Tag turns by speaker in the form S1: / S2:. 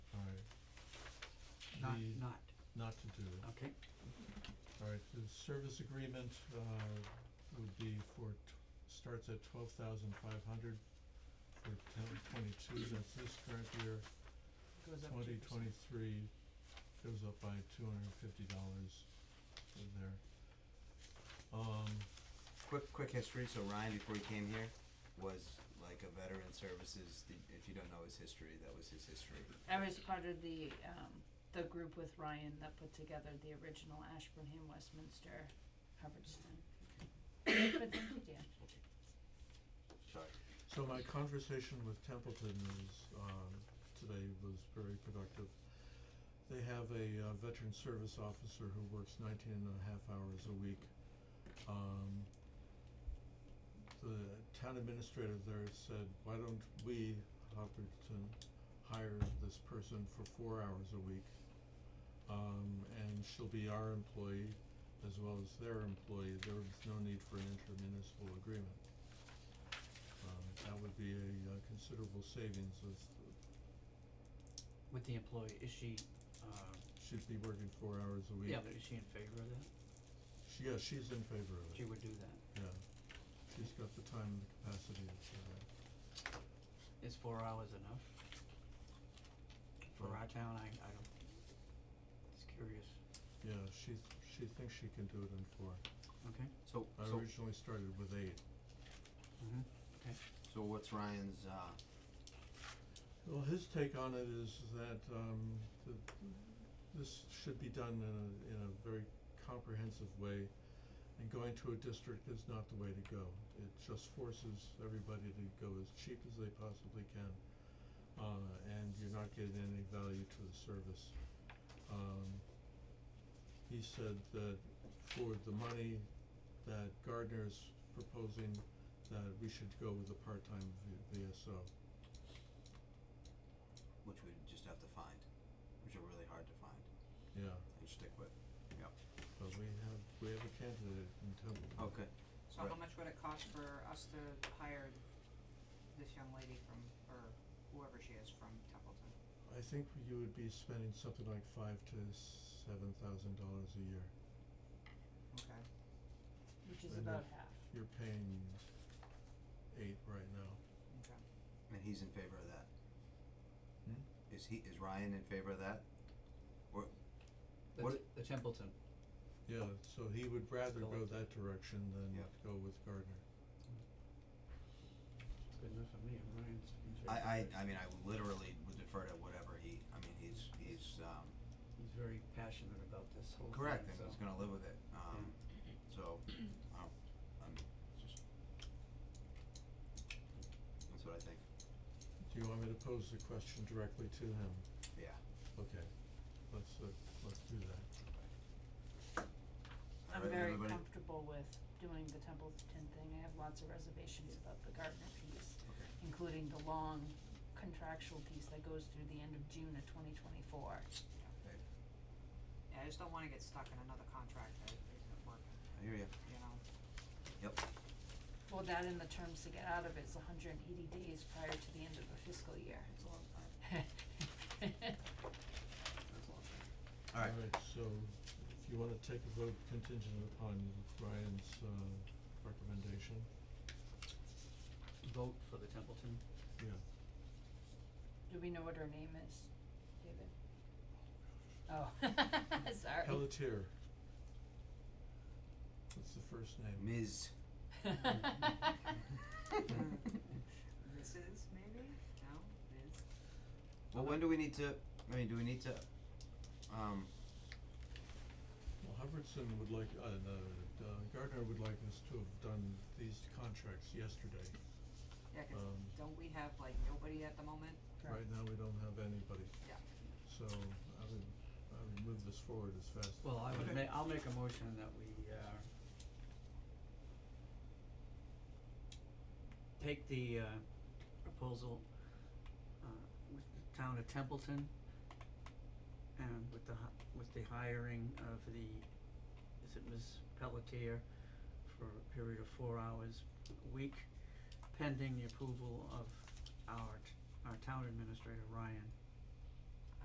S1: not,
S2: the-
S1: not,
S2: not to do.
S1: okay,
S2: All right, the service agreement, uh, would be for, t- starts at twelve thousand five hundred for ten, twenty-two, that's this current year.
S3: goes up
S2: Twenty
S3: 2%.
S2: twenty-three goes up by two hundred and fifty dollars in there. Um,
S4: Quick, quick history. So Ryan, before he came here, was like a veteran services. The, if you don't know his history, that was his history.
S3: I was part of the, um, the group with Ryan that put together the original Ashburnham, Westminster, Hubbardston. But thank you, Dan.
S4: Sorry.
S2: so my conversation with Templeton is, um, today was very productive. They have a uh, veteran service officer who works nineteen and a half hours a week. Um, the town administrator there said, why don't we, Hubbardston, hire this person for four hours a week? Um, and she'll be our employee as well as their employee, there was no need for an intermunicipal agreement. Um, that would be a uh, considerable savings uh, of,
S1: with the employee, is she, uh,
S2: she'd be working four hours a week.
S1: yeah, but is she in favor of that?
S2: She, yeah, she's in favor of
S1: She
S2: it,
S1: would do that,
S2: yeah. She's got the time and the capacity for that.
S1: is four hours enough? For
S2: Well-
S1: our town, I, I don't, it's curious,
S2: Yeah, she, she thinks she can do it in four.
S1: okay,
S4: So,
S2: I
S4: so,
S2: originally started with eight.
S1: mhm,
S4: so what's Ryan's? Uh,
S2: Well, his take on it is that um that this should be done in a in a very comprehensive way and going to a district is not the way to go. It just forces everybody to go as cheap as they possibly can. Uh and you're not getting any value to the service. Um he said that for the money that Gardner's proposing that we should go with a part-time V- VSO.
S4: which we just have to find, which are really hard to find
S2: Yeah.
S4: and stick with.
S2: But we have, we have a candidate in Templeton.
S4: Okay.
S5: So how much would it cost for us to hire this young lady from, or whoever she is from Templeton?
S2: I think you would be spending something like five to seven thousand dollars a year.
S5: Okay,
S3: which is
S2: Linda.
S3: about half.
S2: You're paying eight right now.
S5: okay.
S4: And he's in favor of that. Is
S2: Hmm?
S4: he? Is Ryan in favor of that?
S1: the,
S4: What-
S1: T- the Templeton,
S2: Yeah, so he would rather go
S1: Elected.
S2: that direction than
S4: Yeah.
S2: go with Gardner.
S1: it's good enough for me, Ryan's in favor.
S4: I, I, I mean, I literally would defer to whatever he. I mean, he's he's um,
S1: He's very passionate about this whole thing, so.
S4: correct, and he's gonna live with it. Um, so, um, I'm just. That's what I think.
S2: Do you want me to pose the question directly to him?
S4: Yeah.
S2: Okay, let's, uh, let's do that.
S3: I'm
S4: Alright,
S3: very
S4: everybody?
S3: comfortable with doing the Templeton thing, I have lots of reservations about the Gardner piece,
S4: Okay.
S3: including the long contractual piece that goes through the end of June of twenty twenty-four.
S5: Yeah, I just don't wanna get stuck in another contract that isn't working,
S4: I hear you.
S5: you know?
S3: Well, that and the terms to get out of it is hundred and eighty days prior to the end of the fiscal year.
S4: It's a long time. That's a long time. All right.
S2: Alright, so if you wanna take a vote contingent upon Ryan's, uh, recommendation,
S1: Vote for the Templeton,
S2: yeah.
S3: Do we know what her name is, David? Oh, sorry.
S2: Pelletier. That's the first name.
S4: Ms.
S5: Mrs. maybe? No, Ms.
S4: Well, when do we need to? I mean, do we need to? Um,
S2: Well, Hubbardson would like, uh, no, uh, Gardner would like us to have done these contracts yesterday.
S5: Yeah, 'cause
S2: Um,
S5: don't we have like nobody at the moment?
S2: right now, we don't have anybody.
S5: Yeah.
S2: So I would, I would move this forward as fast as.
S1: well, I would
S4: Okay.
S1: ma- I'll make a motion that we, uh, take the, uh, proposal, uh, with the town of Templeton and with the hi- with the hiring of the, is it Ms. Pelletier for a period of four hours a week pending the approval of our, t- our town administrator, Ryan,